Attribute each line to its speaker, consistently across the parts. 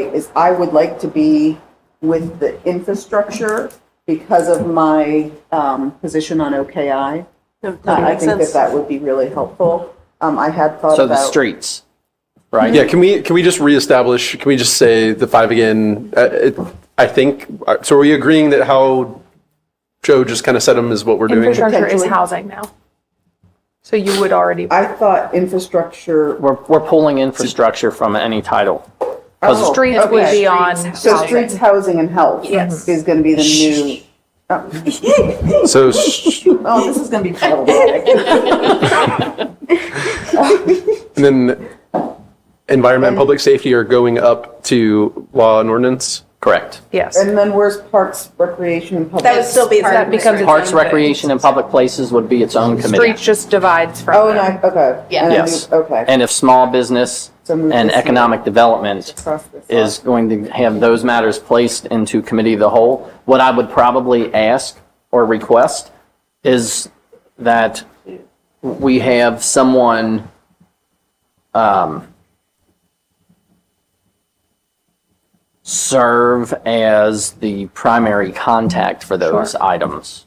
Speaker 1: is I would like to be with the infrastructure because of my um, position on OKI.
Speaker 2: That
Speaker 1: I I
Speaker 2: makes
Speaker 1: think that
Speaker 2: sense.
Speaker 1: that would be really helpful. Um, I had thought about.
Speaker 3: So the streets, right?
Speaker 4: Yeah, can we, can we just reestablish, can we just say the five again? Uh, it- I think, uh, so are we agreeing that how Joe just kind of said them is what we're doing?
Speaker 5: Infrastructure is
Speaker 1: Potentially.
Speaker 5: housing now. So you would already,
Speaker 1: I thought infrastructure.
Speaker 3: We're, we're pulling infrastructure from any title.
Speaker 1: Oh,
Speaker 5: streets would
Speaker 1: okay.
Speaker 5: be on
Speaker 1: So
Speaker 5: housing.
Speaker 1: streets, housing, and health is going to be the new.
Speaker 4: So, sh-
Speaker 1: Oh, this is going to be problematic.
Speaker 4: and then environment and public safety are going up to law and ordinance?
Speaker 3: Correct.
Speaker 5: Yes.
Speaker 1: And then where's parks, recreation, and public?
Speaker 6: That would still be.
Speaker 5: That becomes its
Speaker 3: Parks,
Speaker 5: own thing.
Speaker 3: recreation, and public places would be its own
Speaker 5: Streets
Speaker 3: committee.
Speaker 5: just divides from.
Speaker 1: Oh, and
Speaker 5: them.
Speaker 1: I, okay.
Speaker 6: Yeah.
Speaker 1: And I
Speaker 3: Yes.
Speaker 1: knew- Okay.
Speaker 3: And if small business
Speaker 1: So move
Speaker 3: and
Speaker 1: this here.
Speaker 3: economic development
Speaker 1: Cross this off.
Speaker 3: is going to have those matters placed into committee of the whole. What I would probably ask or request is that we have someone um, serve as the primary contact for those items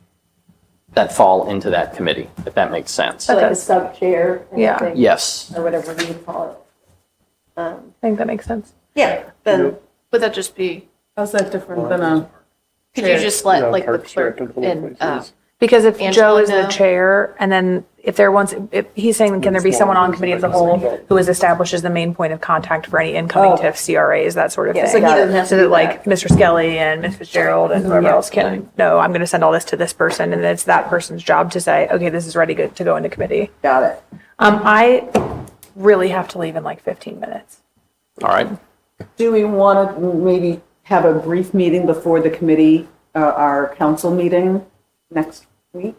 Speaker 3: that fall into that committee, if that makes sense.
Speaker 7: So like a sub chair. and
Speaker 5: Yeah.
Speaker 7: everything,
Speaker 3: Yes.
Speaker 7: Or whatever we would call it.
Speaker 5: I think that makes sense.
Speaker 6: Yeah, then, would that just be,
Speaker 1: How's that different than a?
Speaker 6: could you just let like the clerk and, uh,
Speaker 5: Because if Joe
Speaker 6: Angela,
Speaker 5: is the
Speaker 6: no.
Speaker 5: chair and then if there wants, if he's saying, can there be someone on committee of the whole who is established as the main point of contact for any incoming TIF CRAs, that sort of thing?
Speaker 6: so he doesn't have to
Speaker 5: So
Speaker 6: do
Speaker 5: that like Mr. Skelly and Ms. Fitzgerald and whoever else can, no, I'm going to send all this to this person. And it's that person's job to say, okay, this is ready go- to go into committee.
Speaker 1: Got it.
Speaker 5: Um, I really have to leave in like 15 minutes.
Speaker 3: All right.
Speaker 1: Do we want to maybe have a brief meeting before the committee, uh, our council meeting next week?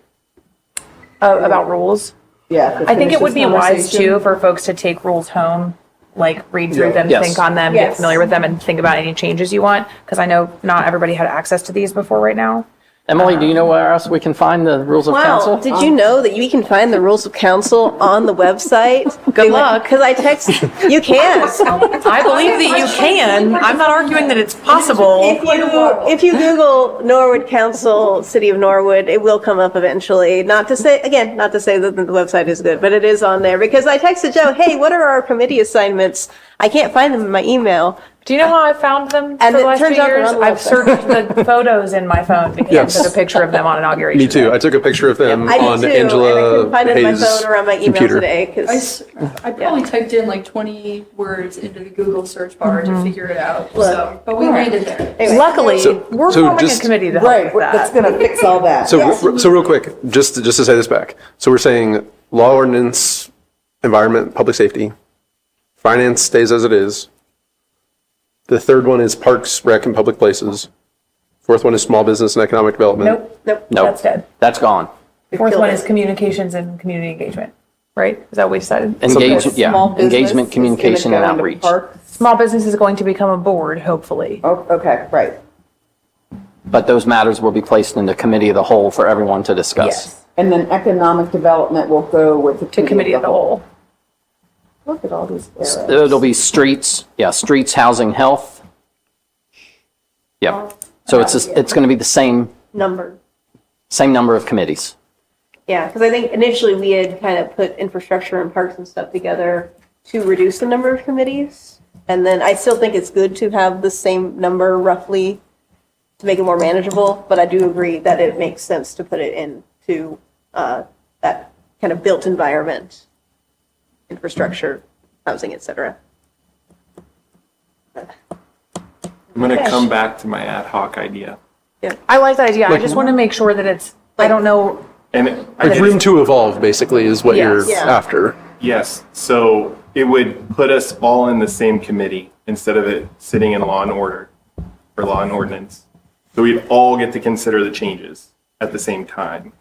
Speaker 5: Uh, about rules.
Speaker 1: Yeah. to
Speaker 5: I think
Speaker 1: finish
Speaker 5: it would
Speaker 1: this
Speaker 5: be wise
Speaker 1: conversation.
Speaker 5: too for folks to take rules home, like read through them,
Speaker 3: Yes.
Speaker 5: think on them, get
Speaker 7: Yes.
Speaker 5: familiar with them, and think about any changes you want. Because I know not everybody had access to these before right now.
Speaker 3: Emily, do you know where else we can find the rules of council?
Speaker 6: wow, did you know that you can find the rules of council on the website? Good luck, because I text, you can.
Speaker 5: I believe that you can. I'm not arguing that it's possible.
Speaker 6: If you, if you Google Norwood Council, City of Norwood, it will come up eventually. Not to say, again, not to say that the website is good, but it is on there. Because I texted Joe, hey, what are our committee assignments? I can't find them in my email.
Speaker 5: Do you know how I found them for
Speaker 6: And
Speaker 5: the
Speaker 6: it
Speaker 5: last two
Speaker 6: turns out they're
Speaker 5: years?
Speaker 6: on the
Speaker 5: I've
Speaker 6: website.
Speaker 5: searched the photos in my phone because I took a picture of them on inauguration.
Speaker 4: Me too. I took a picture of them
Speaker 6: I
Speaker 4: on
Speaker 6: did too. and I couldn't
Speaker 4: Angela
Speaker 6: find it on my
Speaker 4: Hayes'
Speaker 6: phone or on my email
Speaker 4: computer.
Speaker 6: today. 'cause-
Speaker 8: I, s- I probably typed in like 20 words into the Google search bar to figure it out. so, but we landed there.
Speaker 5: Luckily,
Speaker 4: So-
Speaker 5: we're
Speaker 4: so
Speaker 5: forming
Speaker 4: just-
Speaker 5: a committee to help
Speaker 1: Right,
Speaker 5: with that.
Speaker 1: that's going to fix all that.
Speaker 4: So, re- so real quick, just, to- just to say this back. So we're saying law ordinance, environment, public safety, finance stays as it is. The third one is parks, rec, and public places. Fourth one is small business and economic development.
Speaker 5: Nope, nope,
Speaker 3: Nope.
Speaker 5: that's dead.
Speaker 3: That's gone.
Speaker 5: Fourth one is communications and community engagement, right? Is that what we decided?
Speaker 3: Engage,
Speaker 1: Because
Speaker 3: yeah,
Speaker 1: small business is
Speaker 3: engagement,
Speaker 1: gonna
Speaker 3: communication,
Speaker 1: go
Speaker 3: and
Speaker 1: into
Speaker 3: outreach.
Speaker 1: parks.
Speaker 5: Small business is going to become a board, hopefully.
Speaker 1: Oh, Okay, right.
Speaker 3: But those matters will be placed in the committee of the whole for everyone to discuss.
Speaker 1: And then economic development will go with the
Speaker 5: To committee of the whole.
Speaker 1: Look at all these arrows.
Speaker 3: It'll be streets, yeah, streets, housing, health. Yep. So it's, just- it's going to be the same,
Speaker 7: Number.
Speaker 3: same number of committees.
Speaker 7: Yeah, because I think initially we had kind of put infrastructure and parks and stuff together to reduce the number of committees.
Speaker 6: And then I still think it's good to have the same number roughly to make it more manageable, but I do agree that it makes sense to put it into uh, that kind of built environment, infrastructure, housing, et cetera.
Speaker 9: I'm going to come back to my ad hoc idea.
Speaker 5: I like that idea. I just want to make sure that it's, I don't know,
Speaker 9: And it-
Speaker 4: Like room to evolve, basically, is what you're
Speaker 5: Yes.
Speaker 6: Yeah.
Speaker 4: after.
Speaker 9: yes, so it would put us all in the same committee instead of it sitting in law and order or law and ordinance. So we'd all get to consider the changes at the same time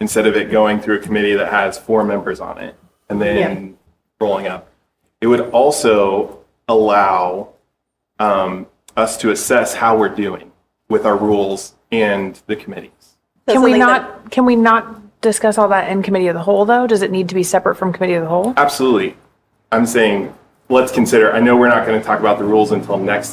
Speaker 9: instead of it going through a committee that has four members on it and then rolling up. It would also allow um, us to assess how we're doing with our rules and the committees.
Speaker 6: So
Speaker 5: can we
Speaker 6: something that-
Speaker 5: not, can we not discuss all that in committee of the whole, though? Does it need to be separate from committee of the whole?
Speaker 9: Absolutely. I'm saying, let's consider, I know we're not going to talk about the rules until next time.